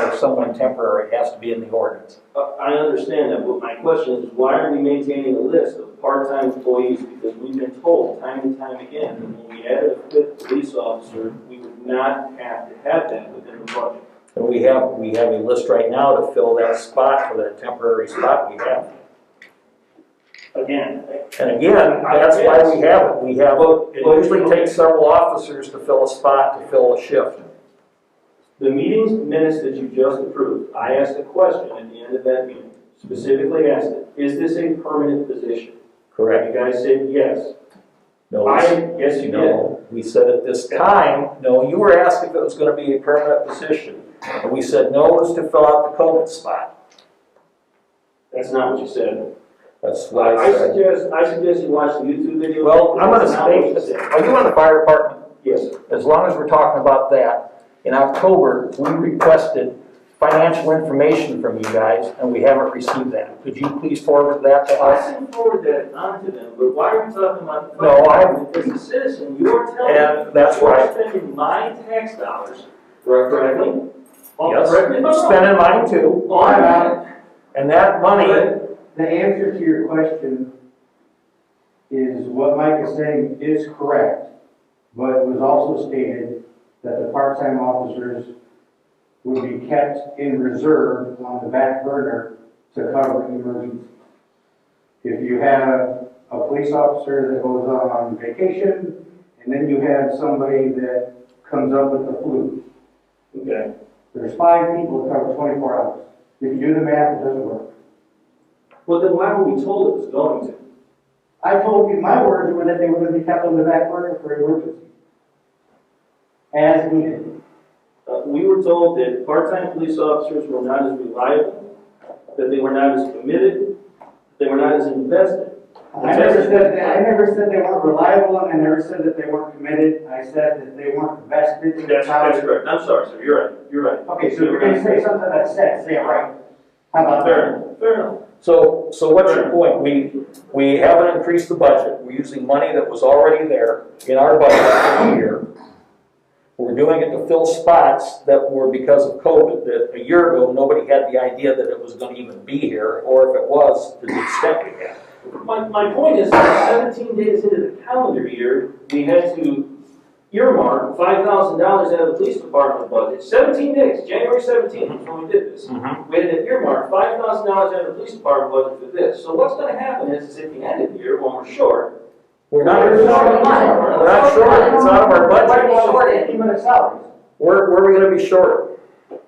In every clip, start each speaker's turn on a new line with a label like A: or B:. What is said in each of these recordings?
A: for someone temporary, it has to be in the ordinance.
B: I Uh, I understand that, but my question is, why are we maintaining a list of part-time employees? Because we've been told time and time again, that when we added a fifth police officer, we would not have to have that within the budget.
A: And we have, we have a list right now to fill that spot for that temporary spot we have.
B: Again,
A: And again, that's why we have it, we have, it usually takes several officers to fill a spot, to fill a shift.
B: the meetings minutes that you just approved, I asked a question at the end of that meeting, specifically asked it, is this a permanent position?
A: Correct.
B: You guys said yes.
A: No,
B: I, yes, you did.
A: no, we said at this time, no, you were asked if it was gonna be a permanent position. And we said no, it was to fill out the COVID spot.
B: That's not what you said.
A: That's what I
B: I
A: said.
B: suggest, I suggest you watch the YouTube video.
A: Well, I'm gonna
B: That's not what you
A: state,
B: said.
A: are you on the fire department?
B: Yes,
A: as long as we're talking about that, in October, we requested financial information from you guys, and we haven't received that. Could you please forward that to
B: I
A: us?
B: can forward that on to them, but why are we talking about? the
A: No, I-
B: fire? As a citizen, you are telling me.
A: And that's
B: You're
A: why,
B: spending my tax dollars, correctly? Oh,
A: yes,
B: correct me if I'm wrong.
A: spending mine too,
B: On
A: and that money,
B: that,
C: The answer to your question is what Mike is saying is correct, but it was also stated that the part-time officers would be kept in reserve on the back burner to cover emergencies. If you have a police officer that goes on vacation, and then you have somebody that comes up with the flu,
B: okay,
C: there's five people that cover twenty-four hours. If you do the math, it doesn't work.
B: well, then why were we told it was going to?
C: I told you, my words were that they were gonna be kept on the back burner for emergency. As needed.
B: Uh, we were told that part-time police officers were not as reliable, that they were not as committed, they were not as invested.
C: I never said, that- I never said they weren't reliable, and I never said that they weren't committed, I said that they weren't vested in the town.
B: correct. I'm sorry, sir, you're right, you're right.
C: Okay, so if you're gonna say something that said, say it right. How about
B: Fair,
C: that?
B: enough, fair enough.
A: so, so what's your point? We, we haven't increased the budget, we're using money that was already there in our budget for the year. We're doing it to fill spots that were because of COVID, that a year ago, nobody had the idea that it was gonna even be here, or if it was, to the extent we had.
B: My, my point is, seventeen days into the calendar year, we had to earmark five thousand dollars out of the police department budget. Seventeen days, January seventeenth, is when we did this. We had to earmark five thousand dollars out of the police department budget for this. So what's gonna happen is, is at the end of the year, when we're short,
A: We're not, we're not short, it's out of our
C: Why do you
A: budget.
C: want short It came out of salaries.
A: Where, where are we gonna be short?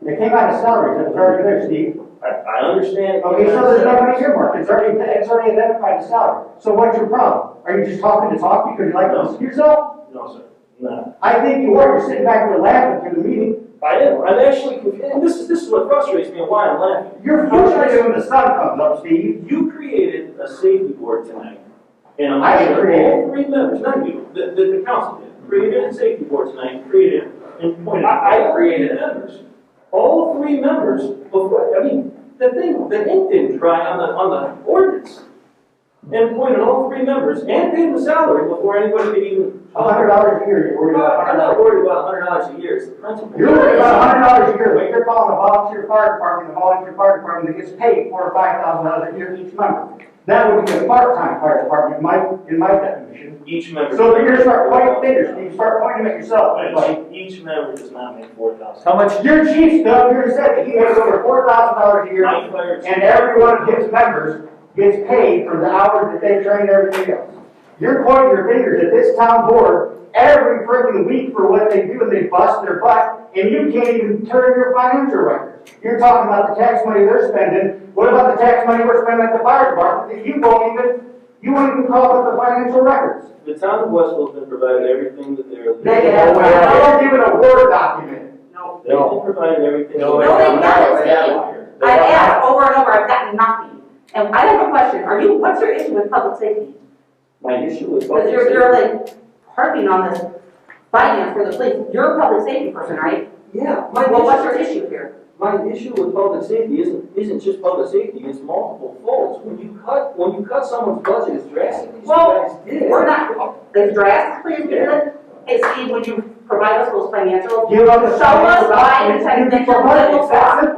C: It came out of salaries, it's already there, Steve.
B: I, I understand.
C: Okay, so there's no money earmarked, it's already, it's already identified as salary. So what's your problem? Are you just talking to talk because you like to listen to yourself?
B: No, sir, no.
C: I think you are, you're sitting back there laughing through the meeting.
B: I am, I'm actually confused, and this is, this is what frustrates me and why I'm laughing.
C: You're frustrated when the sun comes up, Steve.
B: You created a safety board tonight. And
C: I
B: I'm
C: didn't
B: sure
C: create it.
B: all three members, not you, the, the, the council did, created a safety board tonight, created and pointed. I, I created members. All three members before, I mean, the thing, the ink didn't dry on the, on the ordinance. And pointed all three members and paid them salary before anybody could even.
C: A hundred dollars a year, you're worried about.
B: I'm not worried about hundred dollars a year, it's the principle.
C: You're worried about a hundred dollars a year, but you're calling a volunteer fire department, a volunteer fire department that gets paid four or five thousand dollars a year each member. That would be a part-time fire department, in my, in my definition.
B: Each member.
C: So you're gonna start pointing fingers, you start pointing at yourself, buddy.
B: Each member does not make four thousand.
A: How much,
C: Your chief, Doug, you said that he makes over four thousand dollars a year,
B: My fire chief-
C: and every one of his members gets paid for the hours that they train everything else. You're pointing your fingers at this town board every freaking week for what they do, and they bust their butt, and you can't even turn your financial records. You're talking about the tax money they're spending, what about the tax money we're spending at the fire department, that you won't even, you won't even call up the financial records?
B: The town of Westville's been provided everything that they're.
C: They have, I don't give it a Word document.
B: They've been provided everything.
A: No,
D: No, they haven't, Steve.
B: They
D: I've
B: have
D: asked over and over, I've gotten nothing. And I have a question, are you, what's your issue with public safety?
B: My issue with.
D: Because you're, you're like harping on this finance for the police, you're a public safety person, right?
B: Yeah, my
D: Well, what's your
B: issue,
D: issue here?
B: my issue with public safety isn't, isn't just public safety, it's multiple folds. When you cut, when you cut someone's budget as drastically as you
D: Well,
B: guys did.
D: We're not, as drastically as you did, hey Steve, would you provide us those financials?
C: Give up the
D: Show
C: financial
D: us why
C: documents,
D: it's
C: and
D: that
C: you
D: you're
C: promote it.
D: little
C: That's
D: fraud.
C: it.